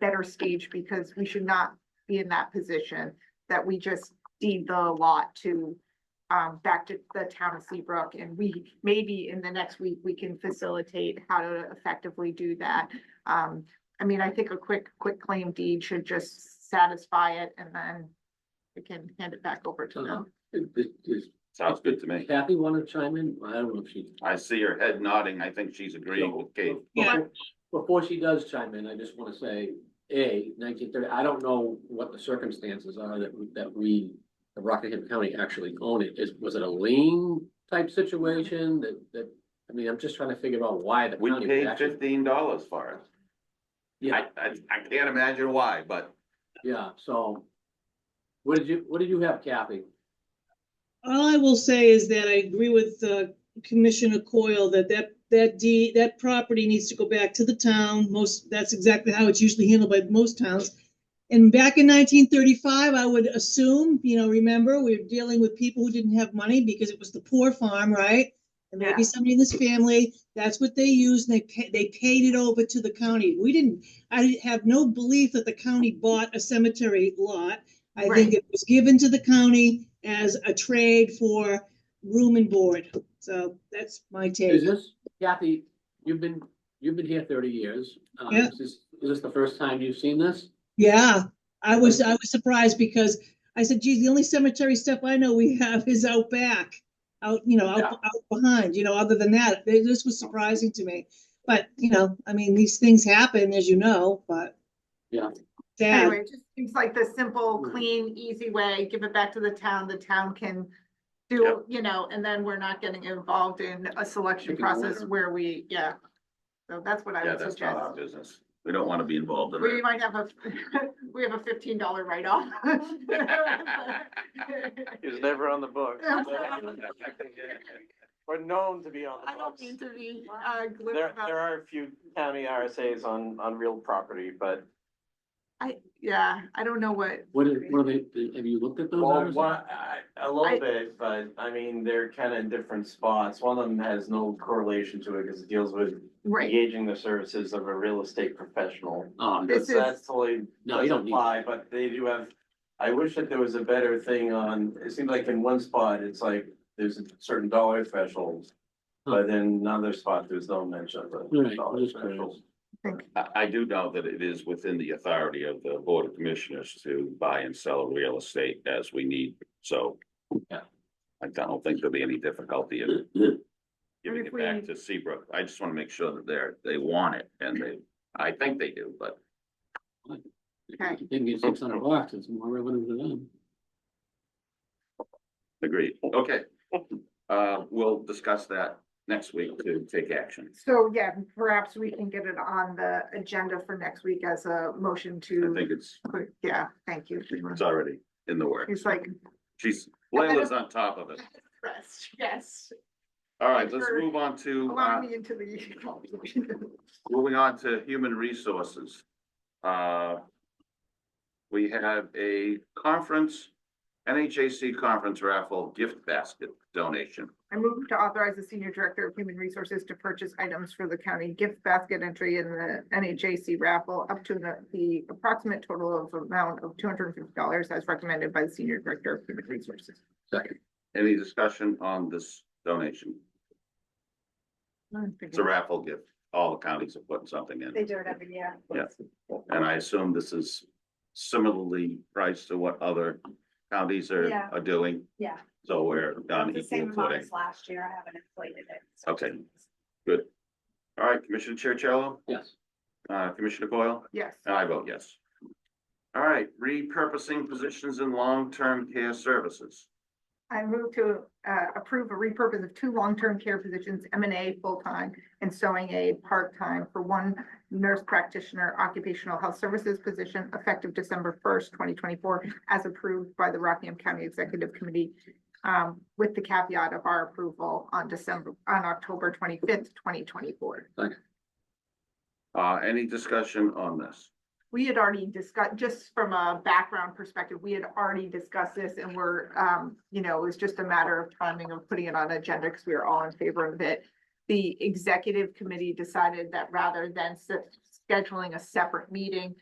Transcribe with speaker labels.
Speaker 1: better stage because we should not be in that position that we just deed the lot to um, back to the town of Seabrook and we, maybe in the next week, we can facilitate how to effectively do that. Um, I mean, I think a quick, quick claim deed should just satisfy it and then we can hand it back over to them.
Speaker 2: Is- is-
Speaker 3: Sounds good to me.
Speaker 2: Kathy want to chime in? I don't know if she.
Speaker 3: I see her head nodding. I think she's agreeing with Kate.
Speaker 4: Yeah.
Speaker 2: Before she does chime in, I just want to say, A, nineteen thirty, I don't know what the circumstances are that, we- that we, the Rockingham County actually own it. Is, was it a lien type situation that, that, I mean, I'm just trying to figure out why the
Speaker 3: We
Speaker 2: county. would
Speaker 3: paid
Speaker 2: actually-
Speaker 3: fifteen dollars for it.
Speaker 2: Yeah,
Speaker 3: I, I, I can't imagine why, but
Speaker 2: yeah, so. What did you, what did you have, Kathy?
Speaker 4: All I will say is that I agree with uh, Commissioner Coyle that that, that deed, that property needs to go back to the town. Most, that's exactly how it's usually handled by most towns. And back in nineteen thirty-five, I would assume, you know, remember, we were dealing with people who didn't have money because it was the poor farm, right? And
Speaker 1: Yeah.
Speaker 4: maybe somebody in this family, that's what they used, and they, pa- they paid it over to the county. We didn't, I have no belief that the county bought a cemetery lot. I
Speaker 1: Right.
Speaker 4: think it was given to the county as a trade for room and board. So that's my
Speaker 2: Is
Speaker 4: take.
Speaker 2: this, Kathy, you've been, you've been here thirty years. Um,
Speaker 4: Yeah.
Speaker 2: Is this, is this the first time you've seen this?
Speaker 4: Yeah, I was, I was surprised because I said, geez, the only cemetery stuff I know we have is out back. Out, you know,
Speaker 2: Yeah.
Speaker 4: out, out behind, you know, other than that, th- this was surprising to me. But, you know, I mean, these things happen, as you know, but.
Speaker 2: Yeah.
Speaker 4: Sad.
Speaker 1: Anyway, it just seems like the simple,
Speaker 3: Hmm.
Speaker 2: Mhm.
Speaker 1: clean, easy way, give it back to the town, the town can
Speaker 3: Yep.
Speaker 1: do, you know, and then we're not getting involved in a selection
Speaker 2: Picking a
Speaker 1: process
Speaker 2: winner.
Speaker 1: where we, yeah. So that's what I
Speaker 3: yeah,
Speaker 1: would
Speaker 3: that's not
Speaker 1: suggest.
Speaker 3: our business. We don't want to be involved in
Speaker 1: We
Speaker 3: it.
Speaker 1: might have a, we have a fifteen dollar write-off.
Speaker 5: He was never on the book.
Speaker 1: I'm
Speaker 5: Or known to be on
Speaker 1: I
Speaker 5: the
Speaker 1: don't
Speaker 5: books.
Speaker 1: mean to be, uh, glib
Speaker 5: There, there
Speaker 1: about,
Speaker 5: are a few county RSAs on, on real property, but
Speaker 1: I, yeah, I don't know what,
Speaker 2: What is, what are they, have you looked at those?
Speaker 5: well,
Speaker 2: hours?
Speaker 5: one, I- a
Speaker 1: I-
Speaker 5: little bit, but I mean, they're kind of different spots. One of them has no correlation to it because it deals with
Speaker 1: right,
Speaker 5: engaging the services of a real estate professional.
Speaker 2: Oh, no,
Speaker 1: This
Speaker 5: That's, that's
Speaker 1: is-
Speaker 5: totally
Speaker 2: no, you
Speaker 5: does
Speaker 2: don't need.
Speaker 5: apply, but they do have, I wish that there was a better thing on, it seemed like in one spot, it's like, there's a certain dollar threshold. But in another spot, there's no mention of a
Speaker 2: Right,
Speaker 5: dollar
Speaker 2: that's correct.
Speaker 5: threshold.
Speaker 3: I, I do know that it is within the authority of the Board of Commissioners to buy and sell real estate as we need, so.
Speaker 2: Yeah.
Speaker 3: I don't think there'll be any difficulty in giving
Speaker 1: if
Speaker 3: it back
Speaker 1: we-
Speaker 3: to Seabrook. I just want to make sure that they're, they want it and they, I think they do, but.
Speaker 1: Okay.
Speaker 2: They can get six hundred bucks, it's more revenue to them.
Speaker 3: Agreed, okay. Uh, we'll discuss that next week to take action.
Speaker 1: so yeah, perhaps we can get it on the agenda for next week as a motion
Speaker 3: I
Speaker 1: to,
Speaker 3: think it's,
Speaker 1: yeah, thank you.
Speaker 3: it's already in the works.
Speaker 1: It's like,
Speaker 3: She's, Leila's on top of it.
Speaker 1: rest, yes,
Speaker 3: All right, let's move on to,
Speaker 1: allow
Speaker 3: uh,
Speaker 1: me into the.
Speaker 3: moving on to human resources. Uh, we have a conference, NHAC conference raffle gift basket donation.
Speaker 1: I move to authorize the senior director of human resources to purchase items for the county gift basket entry in the NHAC raffle up to the, the approximate total of amount of two hundred and fifty dollars as recommended by the senior director of human resources.
Speaker 2: Second,
Speaker 3: Any discussion on this donation? It's a raffle gift. All the counties are putting something in.
Speaker 1: do it every year.
Speaker 3: Yeah. And I assume this is similarly priced to what other counties are,
Speaker 6: Yeah.
Speaker 3: are doing,
Speaker 6: Yeah,
Speaker 3: so we're on
Speaker 6: it's the same
Speaker 3: equal
Speaker 6: amount
Speaker 3: footing.
Speaker 6: as last year. I haven't inflated it.
Speaker 3: Okay. Good. All right, Commissioner Chercello,
Speaker 2: yes.
Speaker 3: uh, Commissioner Coyle,
Speaker 1: Yes,
Speaker 3: and I vote yes. All right, repurposing positions in long-term care services.
Speaker 1: I move to, uh, approve a repurpose of two long-term care positions, M and A full-time and sewing aid part-time for one nurse practitioner occupational health services position effective December first, twenty twenty-four, as approved by the Rockingham County Executive Committee, um, with the caveat of our approval on December, on October twenty-fifth, twenty twenty-four.
Speaker 3: Uh, any discussion on this?
Speaker 1: We had already discussed, just from a background perspective, we had already discussed this and we're, um, you know, it was just a matter of timing of putting it on agenda because we were all in favor of it. The executive committee decided that rather than s- scheduling a separate meeting,